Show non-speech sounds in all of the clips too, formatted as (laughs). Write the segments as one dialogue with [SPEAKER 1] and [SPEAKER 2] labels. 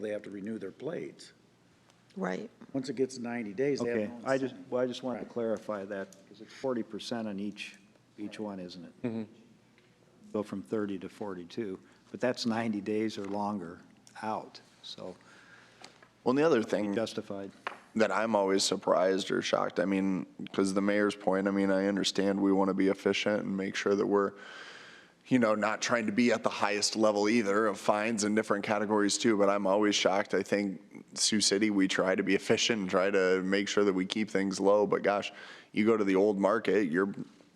[SPEAKER 1] they have to renew their plates.
[SPEAKER 2] Right.
[SPEAKER 1] Once it gets ninety days, they have
[SPEAKER 3] Okay,
[SPEAKER 1] no
[SPEAKER 3] I just,
[SPEAKER 1] incentive.
[SPEAKER 3] well, I just wanted to clarify that, because it's forty percent on each, each one, isn't it? Go from thirty to forty-two, but that's ninety days or longer out, so
[SPEAKER 4] Well, and the other thing
[SPEAKER 3] justified.
[SPEAKER 4] that I'm always surprised or shocked, I mean, because the mayor's point, I mean, I understand we want to be efficient and make sure that we're, you know, not trying to be at the highest level either of fines and different categories too, but I'm always shocked. I think Sioux City, we try to be efficient and try to make sure that we keep things low, but gosh, you go to the old market, you're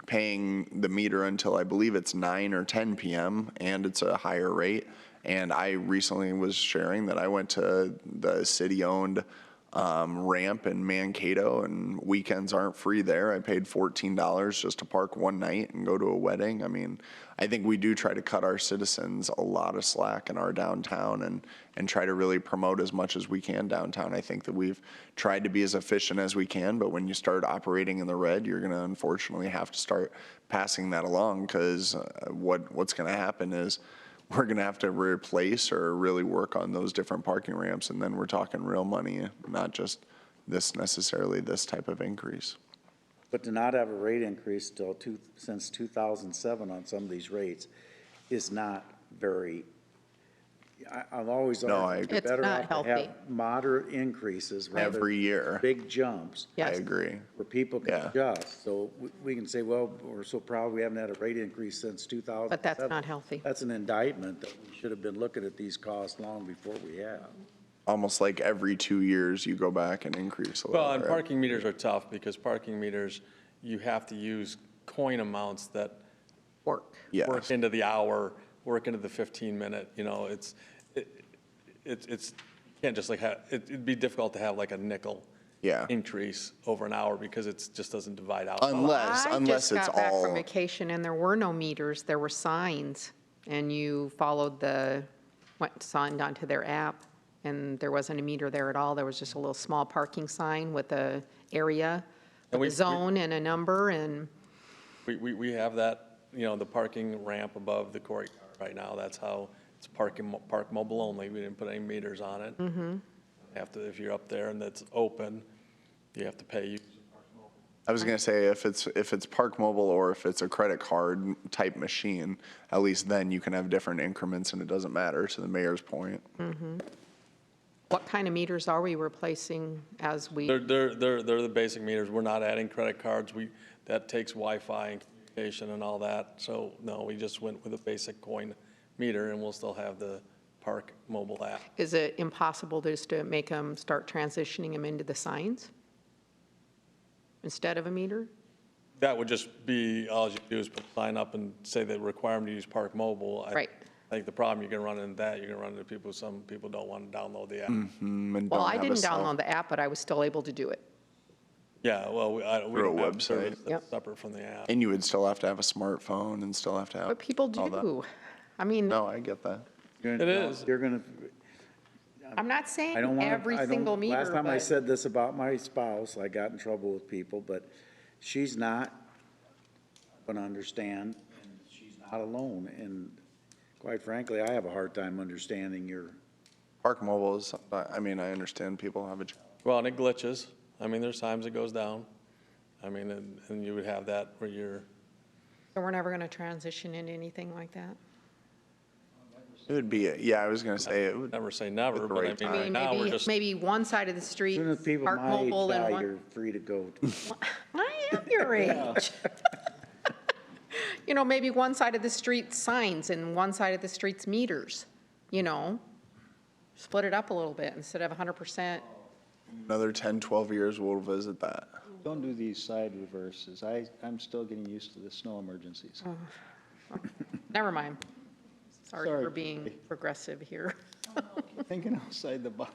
[SPEAKER 4] paying the meter until I believe it's nine or ten PM and it's a higher rate. And I recently was sharing that I went to the city-owned um, ramp in Mankato, and weekends aren't free there. I paid fourteen dollars just to park one night and go to a wedding. I mean, I think we do try to cut our citizens a lot of slack in our downtown and and try to really promote as much as we can downtown. I think that we've tried to be as efficient as we can, but when you start operating in the red, you're going to unfortunately have to start passing that along because uh, what what's going to happen is we're going to have to replace or really work on those different parking ramps, and then we're talking real money, not just this necessarily, this type of increase.
[SPEAKER 1] But to not have a rate increase till two, since two thousand seven on some of these rates is not very, I, I've always
[SPEAKER 4] No, I
[SPEAKER 1] argued,
[SPEAKER 4] agree.
[SPEAKER 1] you're
[SPEAKER 2] It's
[SPEAKER 1] better
[SPEAKER 2] not
[SPEAKER 1] off to have
[SPEAKER 2] healthy.
[SPEAKER 1] moderate increases rather
[SPEAKER 4] Every
[SPEAKER 1] than
[SPEAKER 4] year.
[SPEAKER 1] big jumps.
[SPEAKER 4] I
[SPEAKER 2] Yes.
[SPEAKER 4] agree.
[SPEAKER 1] where people can
[SPEAKER 4] Yeah.
[SPEAKER 1] adjust. So we- we can say, well, we're so proud we haven't had a rate increase since 2000.
[SPEAKER 2] But that's not healthy.
[SPEAKER 1] That's an indictment that we should have been looking at these costs long before we have.
[SPEAKER 4] Almost like every two years, you go back and increase a little.
[SPEAKER 5] Well, and
[SPEAKER 4] right?
[SPEAKER 5] parking meters are tough because parking meters, you have to use coin amounts that
[SPEAKER 2] Work.
[SPEAKER 4] Yes.
[SPEAKER 5] work into the hour, work into the 15-minute, you know, it's, it- it's, it's, you can't just like have, it- it'd be difficult to have like a nickel
[SPEAKER 4] Yeah.
[SPEAKER 5] increase over an hour because it's, just doesn't divide out.
[SPEAKER 4] Unless, unless
[SPEAKER 2] I
[SPEAKER 4] it's
[SPEAKER 2] just got back from
[SPEAKER 4] all,
[SPEAKER 2] vacation and there were no meters, there were signs. And you followed the, went, signed onto their app and there wasn't a meter there at all. There was just a little small parking sign with a area,
[SPEAKER 5] And we-
[SPEAKER 2] with
[SPEAKER 5] we-
[SPEAKER 2] a zone and a number and,
[SPEAKER 5] We, we, we have that, you know, the parking ramp above the courtyard right now, that's how, it's parking, mo- park mobile only, we didn't put any meters on it. Mm-hmm. After, if you're up there and that's open, you have to pay, you,
[SPEAKER 4] I was going to say, if it's, if it's Park Mobile or if it's a credit card type machine, at least then you can have different increments and it doesn't matter, to the mayor's point.
[SPEAKER 2] what kind of meters are we replacing as
[SPEAKER 5] they're,
[SPEAKER 2] we,
[SPEAKER 5] they're, they're, they're the basic meters, we're not adding credit cards, we, that takes Wi-Fi and communication and all that, so, no, we just went with a basic coin meter, and we'll still have the park mobile app.
[SPEAKER 2] is it impossible just to make them start transitioning them into the signs? Instead of a meter?
[SPEAKER 5] That would just be, all you do is put sign up and say the requirement to use Park Mobile. I-
[SPEAKER 2] Right.
[SPEAKER 5] I think the problem, you're gonna run into that, you're gonna run into people, some people don't wanna download the app.
[SPEAKER 4] Mm-hmm. Mm,
[SPEAKER 2] Well, I didn't download the app, but I was still able to do it.
[SPEAKER 5] Yeah, well, we, I, we
[SPEAKER 4] Through a
[SPEAKER 5] don't have
[SPEAKER 4] website.
[SPEAKER 5] service that's
[SPEAKER 2] Yep.
[SPEAKER 5] separate from the app.
[SPEAKER 4] And you would still have to have a smartphone and still have to
[SPEAKER 1] Oh,
[SPEAKER 4] have.
[SPEAKER 2] But people
[SPEAKER 4] all that.
[SPEAKER 2] do. I mean,
[SPEAKER 4] No, I get that.
[SPEAKER 1] It
[SPEAKER 5] is.
[SPEAKER 1] You're gonna,
[SPEAKER 2] I'm not saying
[SPEAKER 1] I
[SPEAKER 2] (laughs)
[SPEAKER 1] don't want.
[SPEAKER 2] every single meter,
[SPEAKER 1] Last time I
[SPEAKER 2] but-
[SPEAKER 1] said this about my spouse, I got in trouble with people, but she's not gonna understand. and She's not alone. And quite frankly, I have a hard time understanding your,
[SPEAKER 4] Park Mobile is, I mean, I understand people have a, ch-
[SPEAKER 5] Well, and it glitches. I mean, there's times it goes down. I mean, and, and you would have that where you're,
[SPEAKER 2] So we're never going to transition into anything like that?
[SPEAKER 4] it would be, yeah, I was going to say, it would
[SPEAKER 5] never say never,
[SPEAKER 4] At the
[SPEAKER 5] but I
[SPEAKER 4] right
[SPEAKER 5] mean,
[SPEAKER 2] I
[SPEAKER 5] right
[SPEAKER 2] mean,
[SPEAKER 5] now, we're
[SPEAKER 2] maybe,
[SPEAKER 5] just,
[SPEAKER 2] maybe one side of the street,
[SPEAKER 1] soon as people
[SPEAKER 2] Park
[SPEAKER 1] my age
[SPEAKER 2] Mobile and
[SPEAKER 1] die,
[SPEAKER 2] one.
[SPEAKER 1] you're free to go.
[SPEAKER 2] I am
[SPEAKER 1] (laughs)
[SPEAKER 2] your age. You know, maybe one side of the street signs and one side of the street's meters, you know? Split it up a little bit instead of 100%.
[SPEAKER 4] another 10, 12 years, we'll visit that.
[SPEAKER 3] Don't do these side reverses, I, I'm still getting used to the snow emergencies.
[SPEAKER 2] Never mind. Sorry
[SPEAKER 3] Sorry.
[SPEAKER 2] for being progressive here.
[SPEAKER 3] Thinking outside the box.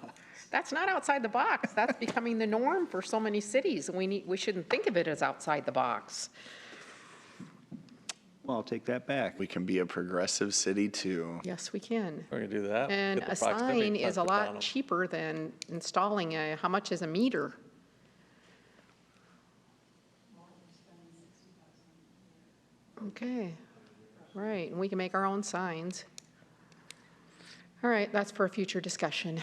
[SPEAKER 2] That's not outside the box. That's becoming the norm for so many cities, and we need, we shouldn't think of it as outside the box.
[SPEAKER 3] Well, I'll take that back.
[SPEAKER 4] We can be a progressive city too.
[SPEAKER 2] Yes, we can.
[SPEAKER 5] we're gonna do that.
[SPEAKER 2] And
[SPEAKER 5] Get the
[SPEAKER 2] a
[SPEAKER 5] proximity
[SPEAKER 2] sign is a
[SPEAKER 5] sensor down
[SPEAKER 2] lot
[SPEAKER 5] 'em.
[SPEAKER 2] cheaper than installing a, how much is a meter? Okay, right, and we can make our own signs. All right, that's for a future discussion.